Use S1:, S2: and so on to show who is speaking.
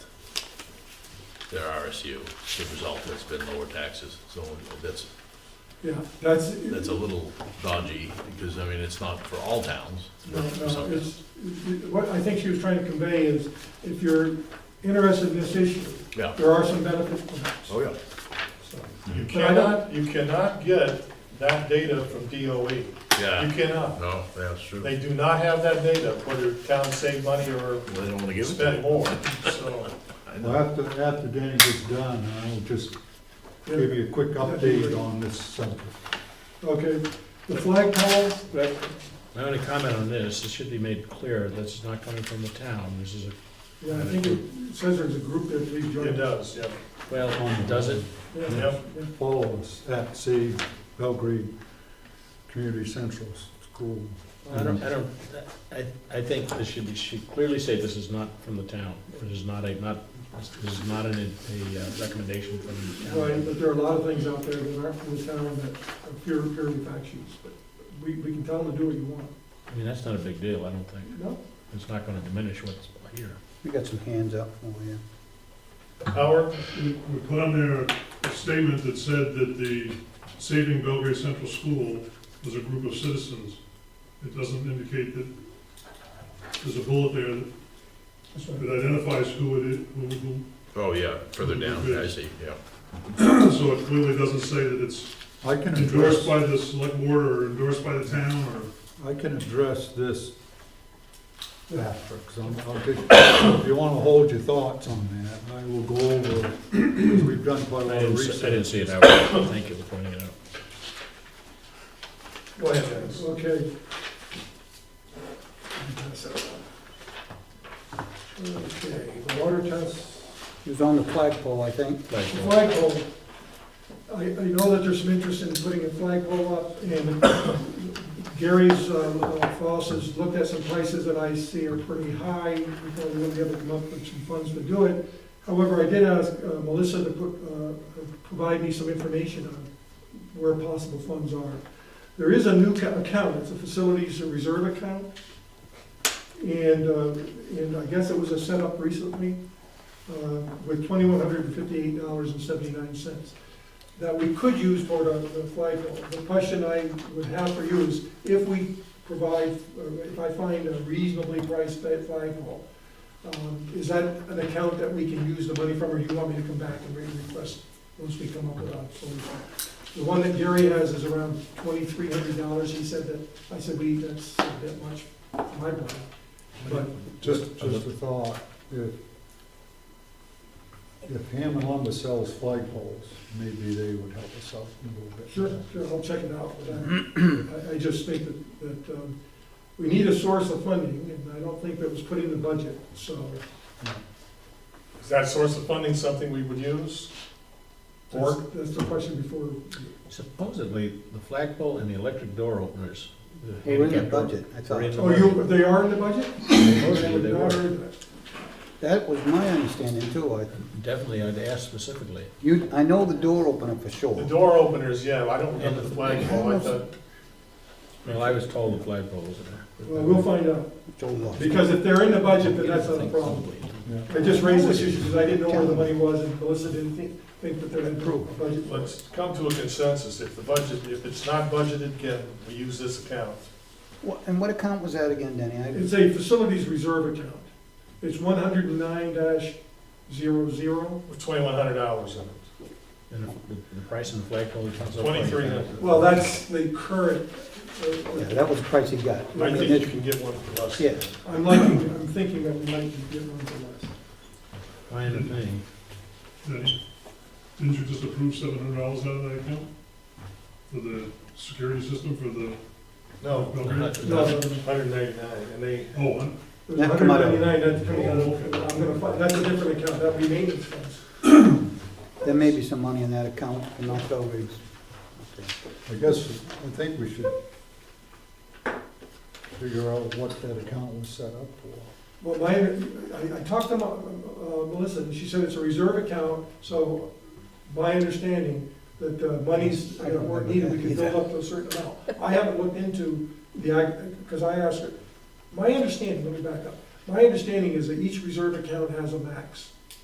S1: their RSU. The result has been lower taxes, so that's,
S2: Yeah, that's.
S1: that's a little dodgy, because, I mean, it's not for all towns.
S2: No,
S1: for some
S2: no, it's,
S1: towns.
S2: what I think she was trying to convey is, if you're interested in this issue,
S1: Yeah.
S2: there are some benefits from this.
S1: Oh, yeah.
S2: So, But
S3: You
S2: I don't-
S3: cannot, you cannot get that data from DOE. You
S1: Yeah,
S3: cannot.
S1: no, that's true. Well,
S3: They do not have that data, whether towns save money or
S1: They don't wanna give it to
S3: spend
S1: you.
S3: more, so.
S1: I know.
S4: Well, after, after Danny gets done, I'll just give you a quick update on this subject.
S2: Okay, the flagpole, that,
S5: My only comment on this, it should be made clear, this is not coming from the town, this is a,
S2: yeah, I think it says there's a group there, please join.
S3: It does, yeah.
S5: well, does it?
S2: Yeah.
S3: Yep.
S4: All of us at Sea Belgrade Community Central School.
S5: I don't, I don't, I, I think this should be, should clearly say this is not from the town, this is not a, not, this is not an, a uh, recommendation from the
S2: Right,
S5: town.
S2: but there are a lot of things out there that aren't from the town that are pure, purely fact sheets, but we, we can tell them to do what you want.
S5: I mean, that's not a big deal, I don't think,
S2: No?
S5: it's not gonna diminish what's here.
S6: We got some hands up for you.
S3: Howard,
S7: We we put on there a statement that said that the Saving Belgrade Central School was a group of citizens. It doesn't indicate that, there's a bullet there that-
S2: That's right.
S7: that identifies who it is, who, who,
S1: Oh, yeah, further down, I see, yeah.
S7: so it clearly doesn't say that it's
S4: I can
S7: endorsed
S4: address,
S7: by the select board or endorsed by the town or.
S4: I can address this after, 'cause I'm, I'll get, if you wanna hold your thoughts on that, I will go over, 'cause we've done quite a lot
S5: I
S4: of
S5: didn't, s- I didn't
S4: research.
S5: see it out, thank you for pointing it out.
S3: go ahead, Dennis.
S2: Okay. Okay, the water test,
S6: It was on the flagpole, I think.
S2: the flagpole. I, I know that there's some interest in putting a flagpole up, and Gary's, um, uh, Foss has looked at some prices that I see are pretty high. We thought we would be able to come up with some funds to do it. However, I did ask uh, Melissa to put, uh, provide me some information on where possible funds are. There is a new ca- account, it's a facilities reserve account. And, uh, and I guess it was a setup recently uh, with twenty-one hundred and fifty-eight dollars and seventy-nine cents that we could use toward a- the flagpole. The question I would have for you is if we provide, or if I find a reasonably priced fa- flagpole, um, is that an account that we can use the money from, or you want me to come back and re- request once we come up with a solution? The one that Gary has is around twenty-three hundred dollars. He said that, I said, we, that's not that much, for my money. But
S4: Just, just a thought, if, if Hammond Lumber sells flagpoles, maybe they would help us out a little bit.
S2: Sure, sure, I'll check it out, but I- I, I just think that, that, um, we need a source of funding, and I don't think that was put in the budget, so.
S3: Is that source of funding something we would use?
S2: That's,
S3: Or,
S2: that's the question before,
S5: Supposedly, the flagpole and the electric door openers. the
S6: We're in the
S5: handicap door-
S6: budget, I thought.
S5: We're in the
S2: oh, you, they are in the budget?
S5: Supposedly
S2: I've
S5: they
S2: not
S5: were.
S2: heard that.
S6: That was my understanding too. I,
S5: Definitely, I'd ask specifically.
S6: you, I know the door opener for
S3: the
S6: sure.
S3: door openers, yeah, I don't remember the flagpole, I thought,
S5: Well, I was told the flagpole was there.
S2: Well, we'll find out,
S6: It's all locked.
S2: because if they're in the budget, then that's not a problem.
S4: Yeah.
S2: I just raised this issue because I didn't know where the money was, and Melissa didn't think, think that there had been a budget. for it.
S3: let's come to a consensus. If the budget, if it's not budgeted, can we use this account?
S6: What- And what account was that again, Danny? I-
S2: It's a facilities reserve account. It's one hundred and nine dash zero zero.
S3: With twenty-one hundred dollars in it.
S5: And if the- the price of the flagpole comes up. like
S3: Twenty-three
S5: that,
S3: hundred.
S2: Well, that's the current, uh,
S6: Yeah, that was the price he got.
S3: I think you can get one for less.
S6: Yeah.
S2: I'm liking, I'm thinking that we might get one for less.
S5: Fine with me.
S7: Denny, Didn't you just approve seven hundred dollars out of that account? For the security system for the
S3: No,
S7: Belgrade?
S2: No, no, no.
S3: hundred ninety-nine, and they,
S7: Oh, I'm-
S2: There's
S6: That come out of-
S2: 199, that's coming out of, I'm gonna find, that's a different account, that'd be maintenance funds.
S6: There may be some money in that account, but not always.
S4: I guess, I think we should figure out what that account was set up for.
S2: Well, my, I, I talked to Ma- uh, Melissa, and she said it's a reserve account, so my understanding that the monies that were needed, we could build up to a certain amount. I haven't looked into the, because I asked her, my understanding, let me back up. My understanding is that each reserve account has a max.